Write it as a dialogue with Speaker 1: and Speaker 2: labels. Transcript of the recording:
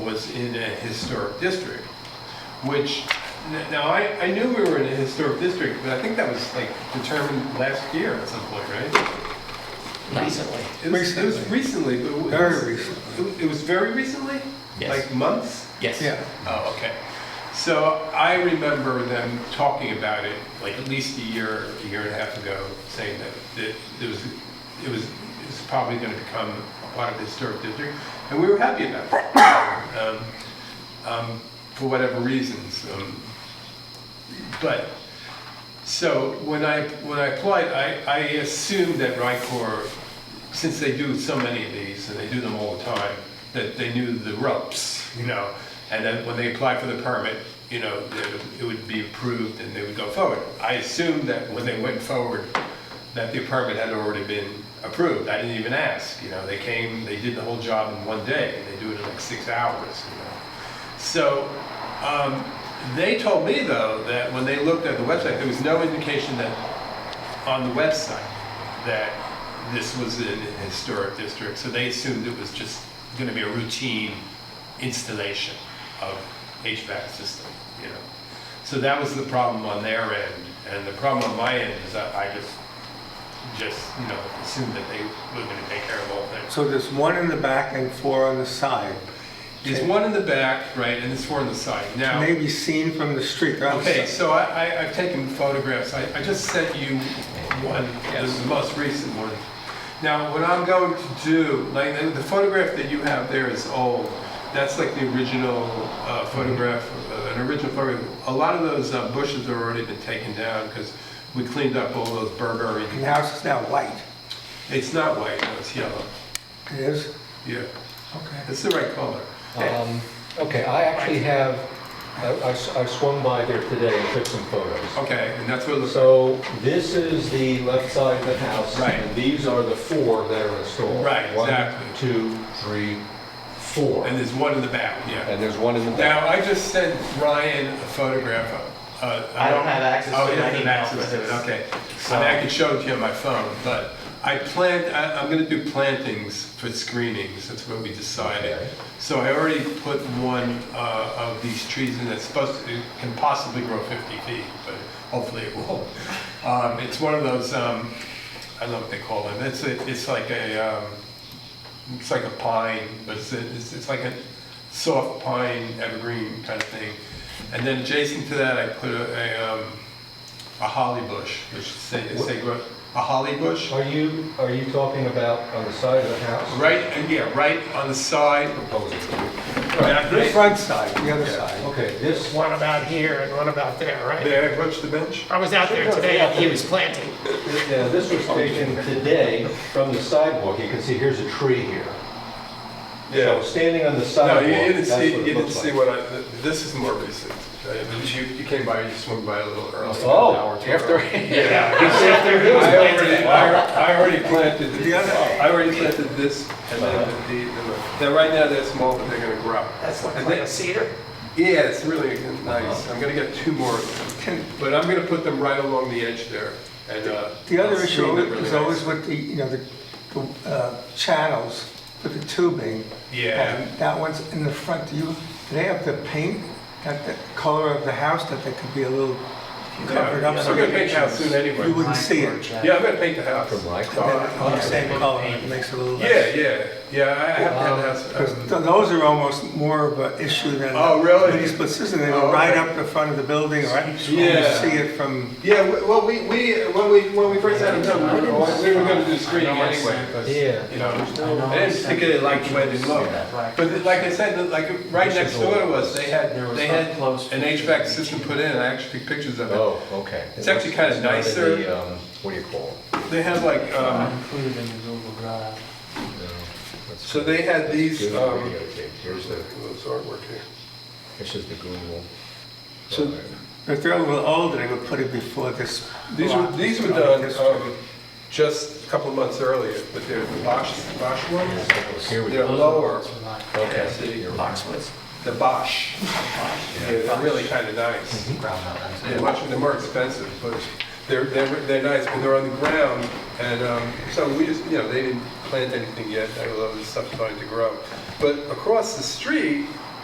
Speaker 1: was in a historic district, which, n- now, I, I knew we were in a historic district, but I think that was like determined last year at some point, right?
Speaker 2: Recently.
Speaker 1: It was, it was recently, but. it was-
Speaker 3: Very recently.
Speaker 1: It it was very recently?
Speaker 2: Yes.
Speaker 1: Like months?
Speaker 2: Yes.
Speaker 3: Yeah,
Speaker 1: Oh, okay. So I remember them talking about it, like at least a year, a year and a half ago, saying that, that it was, it was, it was probably gonna become a part of the historic district, and we were happy about it. Um, um, For whatever reasons, um, but, so when I, when I applied, I, I assumed that Rycor, since they do so many of these, and they do them all the time, that they knew the ropes, you know? And then when they applied for the permit, you know, that it would be approved and they would go forward. I assumed that when they went forward, that the permit had already been approved. I didn't even ask, you know? They came, they did the whole job in one day, and they do it in like six hours, you know? So um, they told me, though, that when they looked at the website, there was no indication that on the website that this was in a historic district. So they assumed it was just going to be a routine installation of HVAC system, you know. So that was the problem on their end. And the problem on my end is that I just, just, you know, assumed that they were going to take care of all things.
Speaker 3: so there's one in the back and four on the side.
Speaker 1: There's one in the back, right, and there's four on the side. Now.
Speaker 3: Can they be seen from the street? They're
Speaker 1: Okay,
Speaker 3: outside.
Speaker 1: so I, I, I've taken photographs, I, I just sent you one, this is the most recent one. Now, what I'm going to do, like, the- the photograph that you have there is old, that's like the original uh, photograph, uh, an original photograph. A lot of those uh, bushes have already been taken down, because we cleaned up all those Burberry,
Speaker 3: And the house is now white.
Speaker 1: it's not white, no, it's yellow,
Speaker 3: It is?
Speaker 1: yeah,
Speaker 3: Okay.
Speaker 1: it's the right color.
Speaker 4: Um, Okay, I actually have, I- I s- I swung by there today and took some photos.
Speaker 1: Okay, and that's what it looks like,
Speaker 4: So this is the left side of the house.
Speaker 1: Right.
Speaker 4: And these are the four that are installed.
Speaker 1: Right, exactly.
Speaker 4: One, two, three, four.
Speaker 1: and there's one in the back, yeah.
Speaker 4: And there's one in the back.
Speaker 1: Now, I just sent Ryan a photograph of. uh,
Speaker 2: I don't have access
Speaker 1: Oh,
Speaker 2: to
Speaker 1: you
Speaker 2: it. I
Speaker 1: don't have
Speaker 2: need
Speaker 1: access to it,
Speaker 2: help.
Speaker 1: okay. I mean, I could show it to you on my phone, but I plant, I- I'm gonna do plantings for screenings, that's what we decided.
Speaker 4: Okay.
Speaker 1: So I already put one uh, of these trees in that's supposed to, it can possibly grow 50 feet, but hopefully it will. Um, It's one of those, um, I don't know what they call them, it's, a- it's like a, um, it's like a pine, but it's, a- it's it's like a soft pine evergreen kind of thing. And then adjacent to that, I put a, a, um, a holly bush, which say, say, grow- a holly bush.
Speaker 4: Are you, are you talking about on the side of the house?
Speaker 1: Right, yeah, right on the side.
Speaker 4: Proposing.
Speaker 3: The front side, the other side.
Speaker 4: Okay, this,
Speaker 5: One about here and one about there, right?
Speaker 1: May I approach the bench?
Speaker 5: I was out there today and he was planting.
Speaker 4: yeah, this was taken today from the sidewalk. You can see, here's a tree here. So standing on the
Speaker 1: No,
Speaker 4: sidewalk,
Speaker 1: you didn't
Speaker 4: that's what
Speaker 1: see,
Speaker 4: it
Speaker 1: you didn't
Speaker 4: looks
Speaker 1: see
Speaker 4: like.
Speaker 1: what I, th- this is more recent. Uh, but You, you came by, you swung by a little early.
Speaker 4: Oh, after,
Speaker 5: Yeah, he was out there, he was
Speaker 1: I already,
Speaker 5: planting.
Speaker 1: I al- I already planted,
Speaker 3: The other-
Speaker 1: I already planted this and then the, the, they're right now they're small, but they're gonna grow.
Speaker 5: That's like
Speaker 1: And
Speaker 5: playing a
Speaker 1: they-
Speaker 5: cedar.
Speaker 1: Yeah, it's really nice. I'm gonna get two more, of them. but I'm gonna put them right along the edge there and, uh.
Speaker 3: The other
Speaker 1: screen
Speaker 3: issue
Speaker 1: them really
Speaker 3: is always
Speaker 1: nice.
Speaker 3: with the, you know, the the, uh, channels with the tubing.
Speaker 1: Yeah.
Speaker 3: And That one's in the front. Do you, do they have to paint that the color of the house that they could be a little covered up?
Speaker 1: Yeah,
Speaker 3: so
Speaker 1: I'm gonna
Speaker 3: that
Speaker 1: paint the house soon anyway.
Speaker 3: You wouldn't see it.
Speaker 1: Yeah, I'm gonna paint the house.
Speaker 4: From my
Speaker 3: Then
Speaker 4: car.
Speaker 3: on the same color, it makes it a little less.
Speaker 1: Yeah, yeah, yeah, I have to have the house. uh,
Speaker 3: Because th- those are almost more of an issue than.
Speaker 1: Oh, really?
Speaker 3: Mini split system, they
Speaker 1: Oh,
Speaker 3: go right
Speaker 1: okay.
Speaker 3: up the front of the building, or you see
Speaker 1: Yeah.
Speaker 3: it from,
Speaker 1: Yeah, we- well, we, we, when we, when we first had it done, we were, always- we were gonna do screening anyway, because,
Speaker 4: Yeah.
Speaker 1: you know, I didn't particularly like the way they looked. But like I said, like, right next door to us, they had, they had an HVAC system put in, I actually took pictures of it.
Speaker 4: Oh, okay.
Speaker 1: It's actually kinda
Speaker 4: It's not in
Speaker 1: nicer.
Speaker 4: the, um, What do you call it?
Speaker 1: They had like, um,
Speaker 2: Included in the Google Drive.
Speaker 4: No, that's-
Speaker 1: so they had these,
Speaker 4: Google
Speaker 1: um,
Speaker 4: videotape. Here's the,
Speaker 1: what's artwork here?
Speaker 4: this is the Google.
Speaker 1: So-
Speaker 4: Drive.
Speaker 3: if they're a little older, they would put it before this.
Speaker 1: These were,
Speaker 3: block.
Speaker 1: these were done, um, just a couple of months earlier, but they're the Bosch, Bosch ones,
Speaker 4: Here we
Speaker 1: they're
Speaker 4: go.
Speaker 1: lower,
Speaker 4: Okay.
Speaker 1: see.
Speaker 4: Here we go.
Speaker 2: Boxwoods.
Speaker 1: the Bosch. Yeah, They're really kinda nice.
Speaker 4: Mm-hmm.
Speaker 1: They're much, they're more expensive, but they're, they're, they're nice, but they're on the ground. And, um, so we just, you know, they didn't plant anything yet, although there's stuff starting to grow. But across the street,